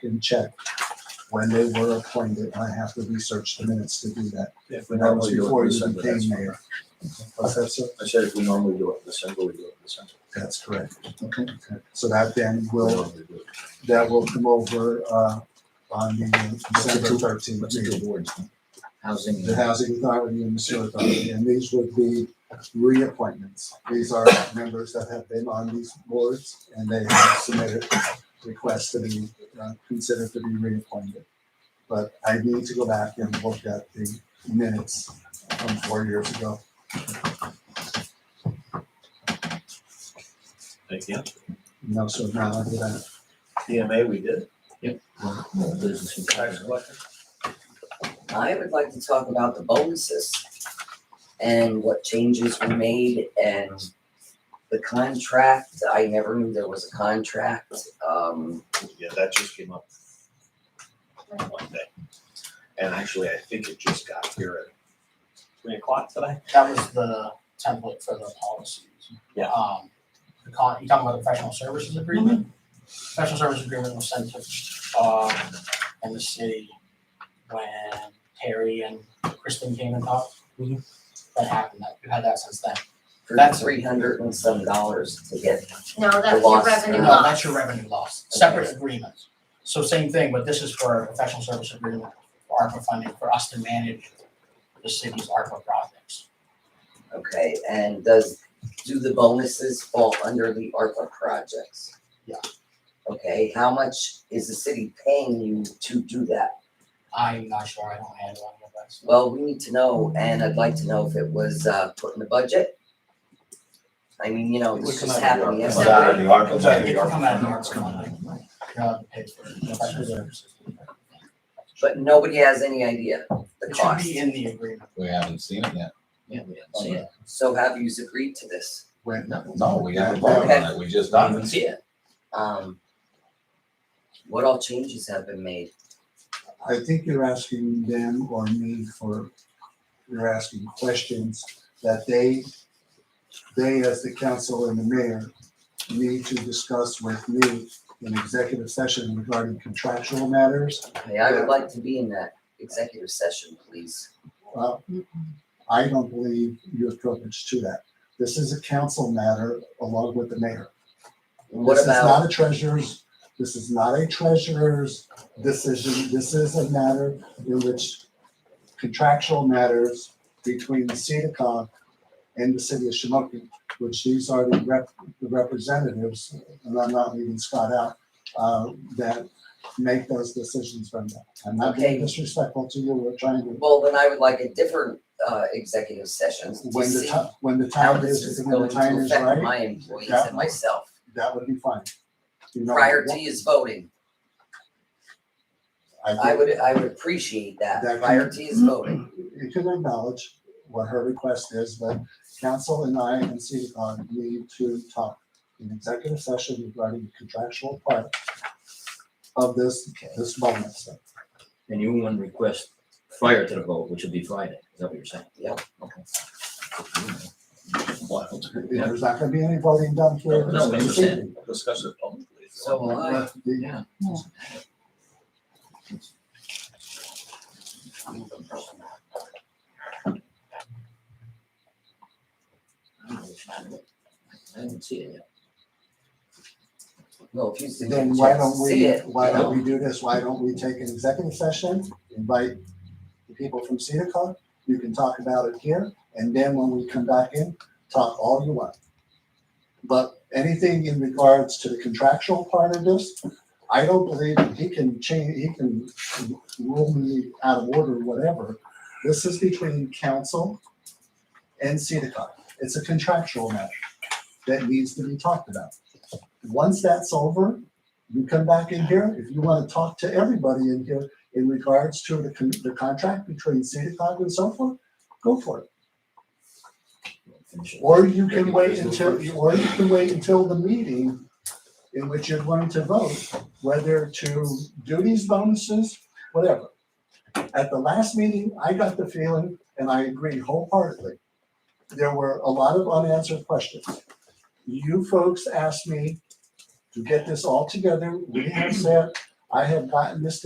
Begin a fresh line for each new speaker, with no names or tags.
can check when they were appointed. I have to research the minutes to do that.
If
But that was
normally do it in
before you
December, that's
became
fine.
mayor. Professor?
I said if we normally do it in December, we do it in December.
That's correct. Okay. So that then
We
will,
normally do it.
that will come over, uh, on the December thirteenth
What's the
meeting.
two boards? Housing.
the housing authority and the sewer authority, and these would be reappointments. These are members that have been on these boards and they have submitted requests to be uh, considered to be reappointed. But I need to go back and look at the minutes from four years ago.
Thank you.
No, so now I do that.
DMA, we did.
Well, business and
Tax
tax.
collector.
I would like to talk about the bonuses and what changes were made and the contract. I never knew there was a contract. Um,
Yeah, that just came up one day. And actually, I think it just got here at three o'clock today.
That was the template for the policies.
Yeah.
Um, the con, you talking about the professional services agreement? Professional services agreement was sent to, uh, and the city when Terry and Kristen came and talked. That happened, that, we've had that since then.
for
That's-
three hundred and some dollars to get,
No, that's your
loss.
revenue
New
No,
loss.
that's your revenue loss, separate agreements. So same thing, but this is for a professional service agreement, for ARPA funding, for us to manage the city's ARPA projects.
okay, and does, do the bonuses fall under the ARPA projects?
Yeah.
Okay, how much is the city paying you to do that?
I'm not sure, I don't handle any of that. stuff.
Well, we need to know, and I'd like to know if it was uh put in the budget. I mean, you know,
It would
this
come
just
out of the ARPA.
happened yesterday.
Out of the ARPA.
It's like, it can come out of ARPA funding. Uh, paid for professional services.
But nobody has any idea the
It should
cost.
be in the agreement.
We haven't seen it yet.
Yeah,
we haven't
seen So have you agreed to this?
When,
No, we haven't voted on it. We just not even see it.
Um, what all changes have been made?
I think you're asking them or me for, you're asking questions that they, they as the council and the mayor need to discuss with me in executive session regarding contractual matters.
Hey, I would like to be in that executive session, please.
Uh, I don't believe you're privileged to that. This is a council matter along with the mayor.
What
This is
about,
not a treasurer's, this is not a treasurer's decision. This is a matter in which contractual matters between the CEDACOG and the city of Shamokin, which these are the rep, the representatives, and I'm not leaving Scott out, uh, that make those decisions from that. I'm not being
Okay.
disrespectful to you. We're trying to,
well, then I would like a different uh executive session to
when the
see
time, when the
how
time
this
is,
is
when the
going
time
to
is
affect
right,
my employees
that-
and myself
that would be fine. You know,
prior to his voting. I
think-
would, I would appreciate that
That-
prior to his voting.
you can acknowledge what her request is, but council and I and CEDACON need to talk in executive session regarding the contractual part of this, this bonus.
And you want to request prior to the vote, which would be Friday. Is that what you're saying?
Yeah.
Okay.
There's not gonna be any voting done here.
No, we understand.
Discuss it publicly. if you
So uh, will I.
The-
I haven't seen it yet.
Well, if you see
Then why don't
see
we,
it,
why don't we do this? Why don't we take an executive session, invite the people from CEDACON? You can talk about it here, and then when we come back in, talk all you want. But anything in regards to the contractual part of this, I don't believe he can change, he can rule me out of order, whatever. This is between council and CEDACON. It's a contractual matter that needs to be talked about. Once that's over, you come back in here, if you want to talk to everybody in here in regards to the, con- the contract between CEDACOG and so forth, go for it.
Finish it.
Or you can wait until, or you can wait until the meeting in which you're going to vote, whether to do these bonuses, whatever. At the last meeting, I got the feeling, and I agree wholeheartedly, there were a lot of unanswered questions. You folks asked me to get this all together. We have said, I have gotten this